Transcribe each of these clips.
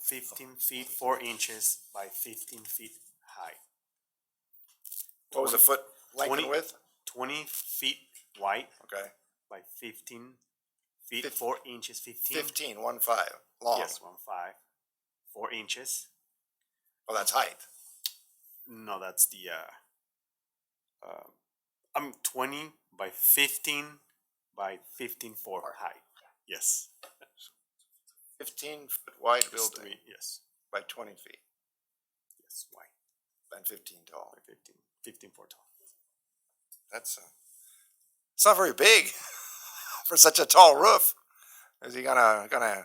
fifteen feet four inches by fifteen feet high, What was the foot length 20? and width? twenty feet wide Okay, by fifteen feet Fif- four inches, fifteen. fifteen, one five, long. Yes, one five, four inches. Well, Oh, that's height. No, that's the uh, uh I'm twenty by fifteen by fifteen four high. Yes. Fifteen foot wide it's building three- Yes, by twenty feet yes, wide and fifteen tall. by fifteen, fifteen four tall. That's, uh, it's not very big for such a tall roof. Is he gonna, gonna,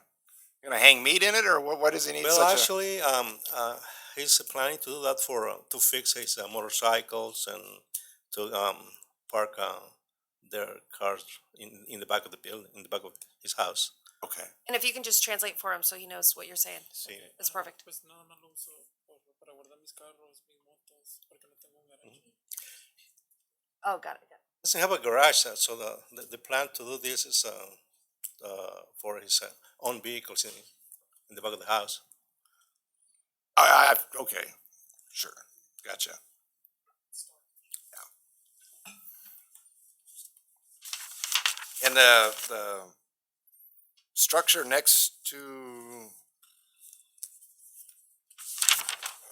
gonna hang meat in it or what, what does he need Well, such a? actually, um, uh, he's planning to do that for, uh, to fix his uh, motorcycles and to, um, park, uh, their cars in, in the back of the building, in the back of his house. Okay, And if you can just translate for him so he knows what you're saying, Sí. that's perfect. Pues nada más lo uso por- para guardar mis carros, mis motos, porque no tengo un garaje. Oh, got it. got it. Doesn't have a garage, uh, so the, the, the plan to do this is, uh, uh, for his uh, own vehicles in, in the back of the house. I, I, okay, sure, gotcha. Yeah. And the, the structure next to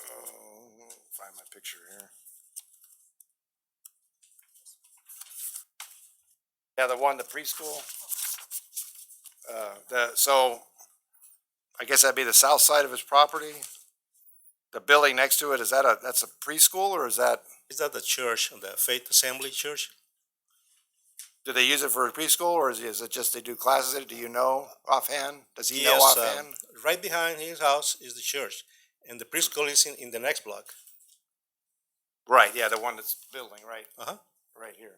Oh, find my picture here. Yeah, the one, the preschool. Uh, the, so I guess that'd be the south side of his property. The building next to it, is that a, that's a preschool or is that, Is that the church, the Faith Assembly Church? do they use it for preschool or is, is it just they do classes? in it? Do you know offhand? Does he know Yes, um, offhand? Right behind his house is the church, and the preschool is in, in the next block. Right, yeah, the one that's building, right, Uh-huh. right here.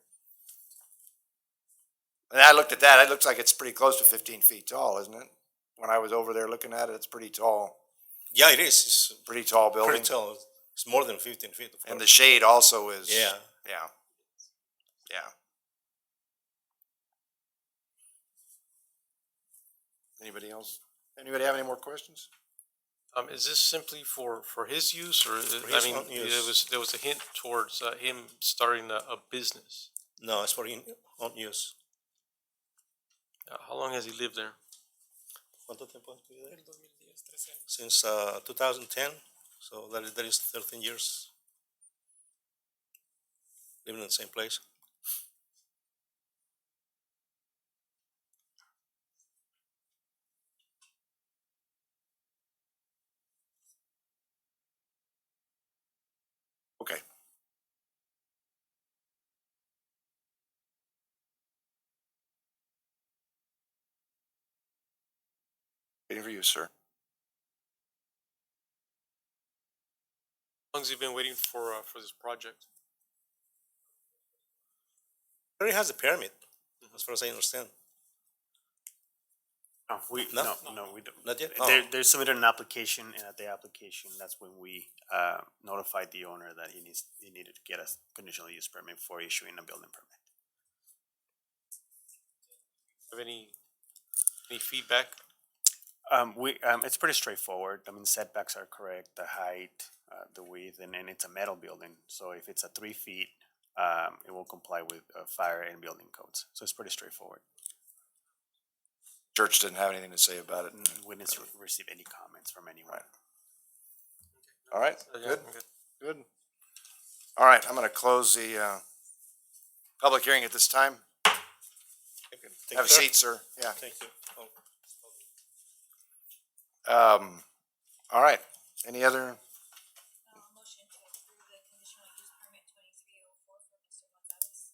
And I looked at that, it looks like it's pretty close to fifteen feet tall, isn't it? When I was over there looking at it, it's pretty tall, Yeah, it is. It's pretty tall building. pretty tall. It's more than fifteen feet. of And the course. shade also is. Yeah, Yeah. Yeah. Anybody else? Anybody have any more questions? Um, is this simply for, for his use or, is- For I his mean, own there use. was, there was a hint towards, uh, him starting a, a business. no, it's for in, on use. Uh, How long has he lived there? ¿Cuánto tiempo has vivido ahí? El 2010, 13 años. Since uh, 2010, so that is, that is 13 years living in the same place. Okay. Waiting for you, sir. How long's he been waiting for, uh, for this project? Already has a permit, as far as I understand. No, we, No? no, no, we don't. Not yet? They, Oh. they submitted an application and at the application, that's when we, uh, notified the owner that he needs, he needed to get a conditional use permit for issuing a building permit. Have any, any feedback? Um, we, um, it's pretty straightforward. I mean setbacks are correct, the height, uh, the width, and, and it's a metal building. So if it's a three feet, um, it will comply with, uh, fire and building codes. So it's pretty straightforward. Church didn't have anything to say about it. N- We didn't re- receive any comments from anyone. All right, Uh, yeah, good, I'm good. All right, I'm gonna close the, uh, public hearing at this time. Thank Have a you, sir. seat, sir. Yeah. Thank you. Oh, Um, all right. Any other? Uh, motion to approve the conditional use permit twenty-three oh four for Mr. Gonzalez.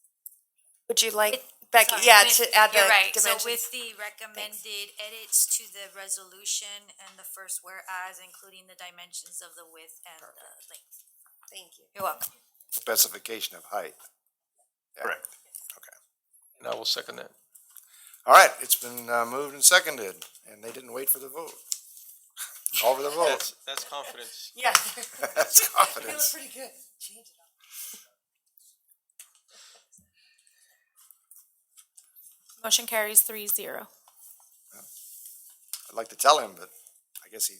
Would you like, With- Becky, sorry, yeah, with- to add the You're right, so dimensions? with the recommended edits to the resolution and the first whereas, including the dimensions of the width and the length. Thank you. You're welcome. specification of height. Correct. good. And I will second that. All right, it's been uh, moved and seconded, and they didn't wait for the vote. All for the vote. That's, that's confidence. Yeah. That's confidence. pretty good. Change it up. Motion carries three zero. I'd like to tell him, but I guess he